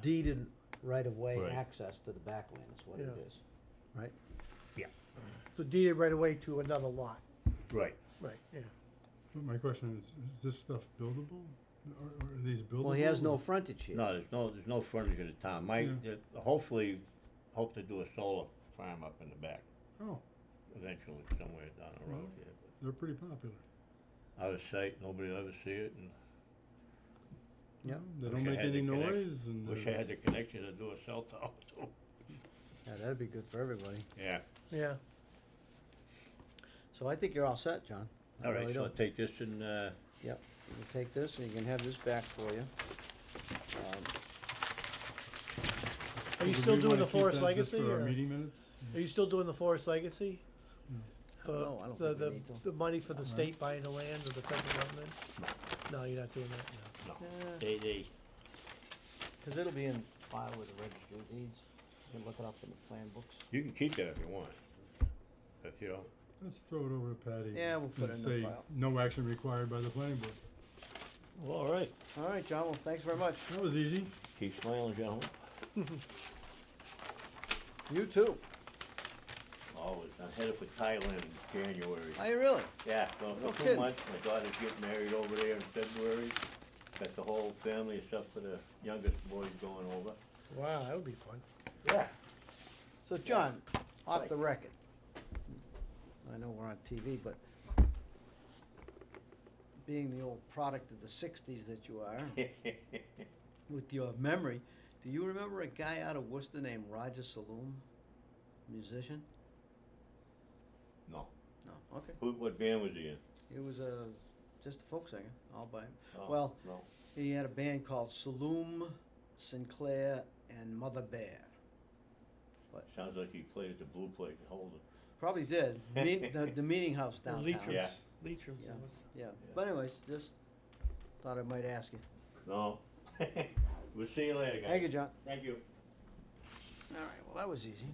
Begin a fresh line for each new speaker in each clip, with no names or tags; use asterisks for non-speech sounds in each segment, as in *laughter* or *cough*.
deeded right-of-way
Uh, Right.
access to the backland is what it
Yeah.
is, right?
Yeah,
So deeded right away to another lot,
right.
right, yeah.
But my question is, is this stuff buildable? Are, are these buildable?
Well, he has no
or-
frontage here.
No, there's no, there's no frontage in the town. My,
Yeah.
uh, hopefully, hope to do a solar farm up in the back
Oh,
eventually, somewhere down the road
Mhm.
here. but
they're pretty popular.
Out of sight, nobody will ever see it, and
Yeah,
They
Wish
don't
I
make
had the
any
connect-
noise and. uh,
wish I
they're-
had the connection to do a cell tower *laughs* too.
yeah, that'd be good for everybody.
Yeah,
Yeah,
So I think you're all set, John. I
all right,
really
so I'll
do.
take this and, uh,
Yep, you can take this and you can have this back for you. Um,
are you
Do
still
we
doing
wanna
the
keep
forest
that just
legacy,
for our
or,
Meeting minutes?
are you still doing the forest legacy?
I don't know, I don't
The-
think we
the-
need to.
The money for the
Right.
state buying the land or the federal government? No, you're not doing that, no.
no,
Yeah.
they, they,
Cause it'll be in file with the registry of deeds, you can look it up in the plan books.
you can keep that if you want. If you don't,
Let's throw it over to Patty.
Yeah, we'll put
and
it in the
say,
file.
No action required by the planning board.
well, all right,
All right, John, well, thanks very much.
That was easy.
keep smiling, gentlemen.
You too.
Always, I'm headed for Thailand in January.
Are you Oh, really?
Yeah, well,
No
for two
kidding.
months, my daughter's getting married over there in February. Got the whole family except for the youngest boys going over.
Wow, that would be fun.
Yeah.
So, John, off the
Right.
record, I know we're on TV, but being the old product of the sixties that you are, with your memory, do you remember a guy out of Worcester named Roger Saloom? Musician?
No.
*laughs* No, okay.
Who, what band was he in?
He was a, just a folk singer, all by him.
Oh,
Well-
No.
He had a band called Saloom, Sinclair, and Mother Bear.
Sounds like he played at the Blue Plate in Holden.
Probably
*laughs*
did, meet, the, the meeting house downtown.
Leitrim's- Yeah.
Leitrim's.
Yeah. Yeah, but anyways, just thought I might ask you.
No. *laughs* We'll see you later, guys.
Thank you, John.
Thank you.
All right, well, that was easy.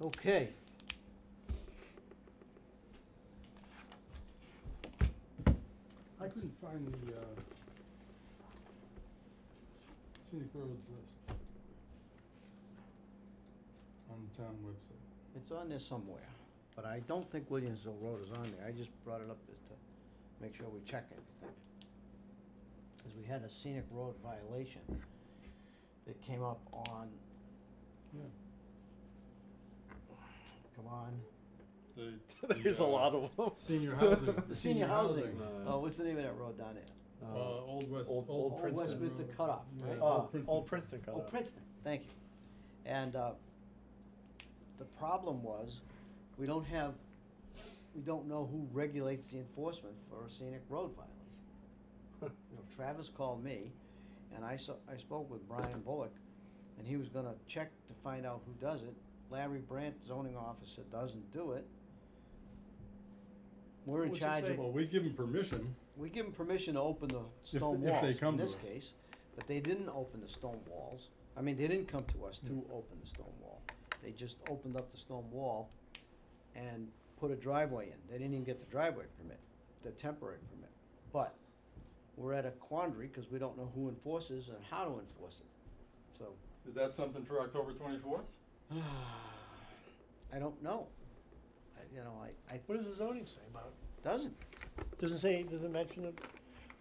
Okay.
I couldn't find the, uh, scenic roads list on the town website.
It's on there somewhere, but I don't think Williamsville Road is on there, I just brought it up just to make sure we check everything. Cause we had a scenic road violation that came up on,
Yeah.
come on. *laughs*
The. uh,
of them.
Senior housing.
The *laughs* senior housing,
uh,
oh, what's the name of that road down there?
Uh, Old West,
Old- Old
Old Princeton.
Princeton.
Westminster *laughs*
Road.
cutoff,
Yeah,
right?
Uh,
Old Princeton.
Old Princeton cut
Oh,
out.
Princeton, thank you. And, uh, the problem was, we don't have, we don't know who regulates the enforcement for a scenic road violation. You know, Travis called me, and I saw, I spoke with Brian Bullock, and he was gonna check to find out who does it. Larry Brandt, zoning officer, doesn't do it. We're in
What's it
charge
say?
of
Well, we give them permission,
we give them permission to open the
they-
stone
if
walls
they come
in
to
this
us.
case, but they didn't open the stone walls. I mean, they didn't come to us to
Hmm.
open the stone wall. They just opened up the stone wall and put a driveway in. They didn't even get the driveway permit, the temporary permit. But we're at a quandary because we don't know who enforces and how to enforce it. So, *sighs*
Is that something for October twenty-fourth?
I don't know. I, you know, I, I,
What does the zoning say about it?
doesn't.
Doesn't say, doesn't mention it,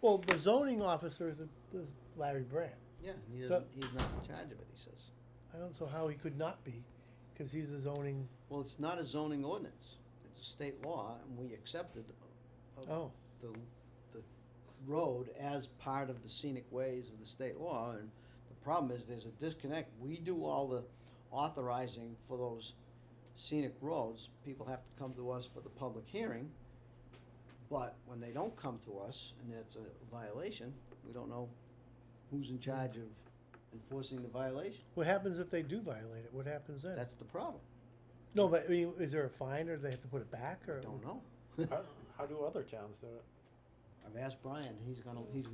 well, the zoning officer is, is Larry Brandt.
Yeah, he
So-
doesn't, he's not in charge of it, he says.
I don't know how he could not be, cause he's the zoning,
Well, it's not a zoning ordinance, it's a state law, and we accepted uh,
oh,
the, the road as part of the scenic ways of the state law, and the problem is, there's a disconnect, we do all the authorizing for those scenic roads, people have to come to us for the public hearing, but when they don't come to us, and it's a violation, we don't know who's in charge of enforcing the violation,
what happens if they do violate it, what happens then?
that's the problem,
No, but I mean, is there a fine or do they have to put it back or?
don't know.
How, how do other towns do it?
I've asked Brian, he's gonna, he's